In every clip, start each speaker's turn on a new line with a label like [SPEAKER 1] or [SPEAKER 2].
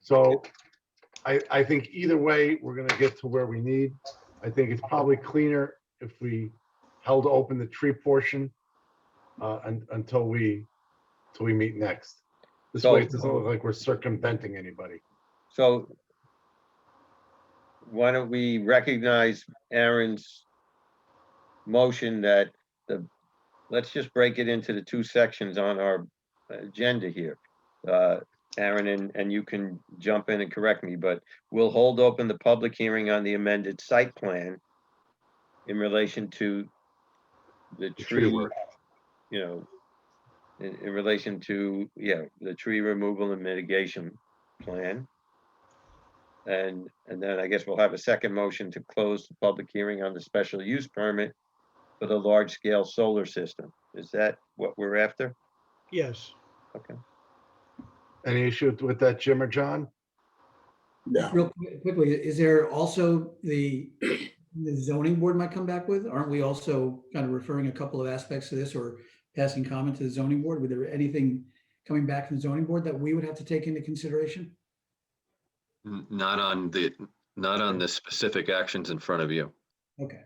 [SPEAKER 1] So I, I think either way, we're gonna get to where we need. I think it's probably cleaner if we held open the tree portion uh, un- until we, till we meet next. This way, it doesn't look like we're circumventing anybody.
[SPEAKER 2] So why don't we recognize Aaron's motion that the, let's just break it into the two sections on our agenda here. Uh, Aaron, and, and you can jump in and correct me, but we'll hold open the public hearing on the amended site plan in relation to the
[SPEAKER 1] The tree
[SPEAKER 2] tree,
[SPEAKER 1] work.
[SPEAKER 2] you know, in, in relation to, yeah, the tree removal and mitigation plan. And, and then I guess we'll have a second motion to close the public hearing on the special use permit for the large-scale solar system. Is that what we're after?
[SPEAKER 3] Yes,
[SPEAKER 1] Any issue with that, Jim or John?
[SPEAKER 4] No.
[SPEAKER 5] Real quick- quickly, is there also the the zoning board might come back with? Aren't we also kind of referring a couple of aspects to this or passing comment to the zoning board? Would there anything coming back from the zoning board that we would have to take into consideration?
[SPEAKER 6] N- Not on the, not on the specific actions in front of you,
[SPEAKER 5] Okay.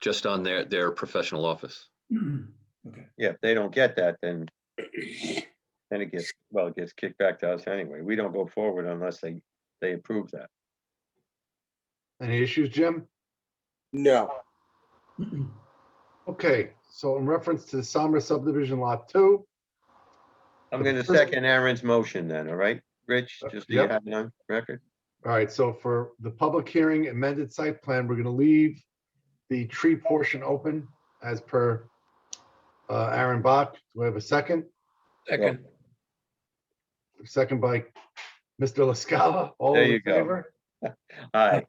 [SPEAKER 6] just on their, their professional office.
[SPEAKER 2] Yeah, if they don't get that, then then it gets, well, it gets kicked back to us anyway. We don't go forward unless they, they approve that.
[SPEAKER 1] Any issues, Jim?
[SPEAKER 4] No.
[SPEAKER 1] Okay, so in reference to Sommer subdivision lot two,
[SPEAKER 2] I'm gonna
[SPEAKER 1] First-
[SPEAKER 2] second Aaron's motion then, all right? Rich,
[SPEAKER 1] Uh,
[SPEAKER 2] just so you
[SPEAKER 1] yep.
[SPEAKER 2] have it on record?
[SPEAKER 1] all right, so for the public hearing amended site plan, we're gonna leave the tree portion open as per uh, Aaron Bach. Do we have a second?
[SPEAKER 2] Second.
[SPEAKER 1] Second by Mr. LaScala. All
[SPEAKER 2] There
[SPEAKER 1] in
[SPEAKER 2] you go.
[SPEAKER 1] favor?
[SPEAKER 2] Aye,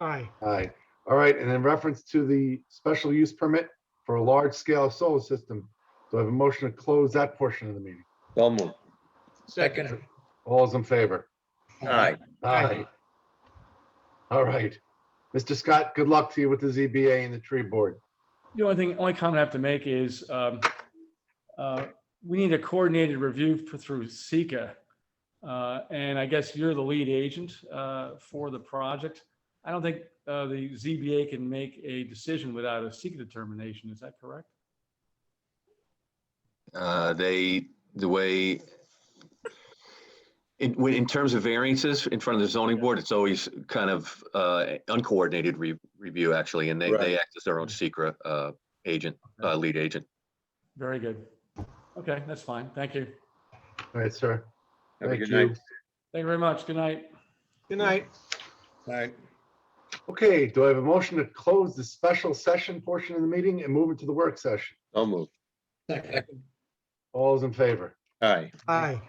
[SPEAKER 3] aye,
[SPEAKER 1] Aye. All right, and in reference to the special use permit for a large scale solar system, do I have a motion to close that portion of the meeting?
[SPEAKER 2] so moved.
[SPEAKER 3] second,
[SPEAKER 1] All is in favor?
[SPEAKER 2] Aye,
[SPEAKER 1] Aye.
[SPEAKER 3] Aye.
[SPEAKER 1] All right. Mr. Scott, good luck to you with the ZBA and the tree board.
[SPEAKER 7] The only thing, only comment I have to make is, um, uh, we need a coordinated review f- through Sika. Uh, and I guess you're the lead agent, uh, for the project. I don't think, uh, the ZBA can make a decision without a Sika determination. Is that correct?
[SPEAKER 6] Uh, They, the way, in, when- in terms of variances in front of the zoning board, it's always kind of uh, uncoordinated re- review, actually, and they, they act as their own secret uh, agent, uh, lead agent.
[SPEAKER 7] Very good. Okay, that's fine. Thank you.
[SPEAKER 1] All right, sir.
[SPEAKER 2] have a
[SPEAKER 1] Thank
[SPEAKER 2] good
[SPEAKER 1] you.
[SPEAKER 2] night.
[SPEAKER 7] Thank you very much. Good night.
[SPEAKER 3] good night.
[SPEAKER 2] Aye.
[SPEAKER 1] Okay, do I have a motion to close the special session portion of the meeting and move it to the work session?
[SPEAKER 2] So moved,
[SPEAKER 5] Second.
[SPEAKER 1] All is in favor?
[SPEAKER 2] aye.
[SPEAKER 3] Aye.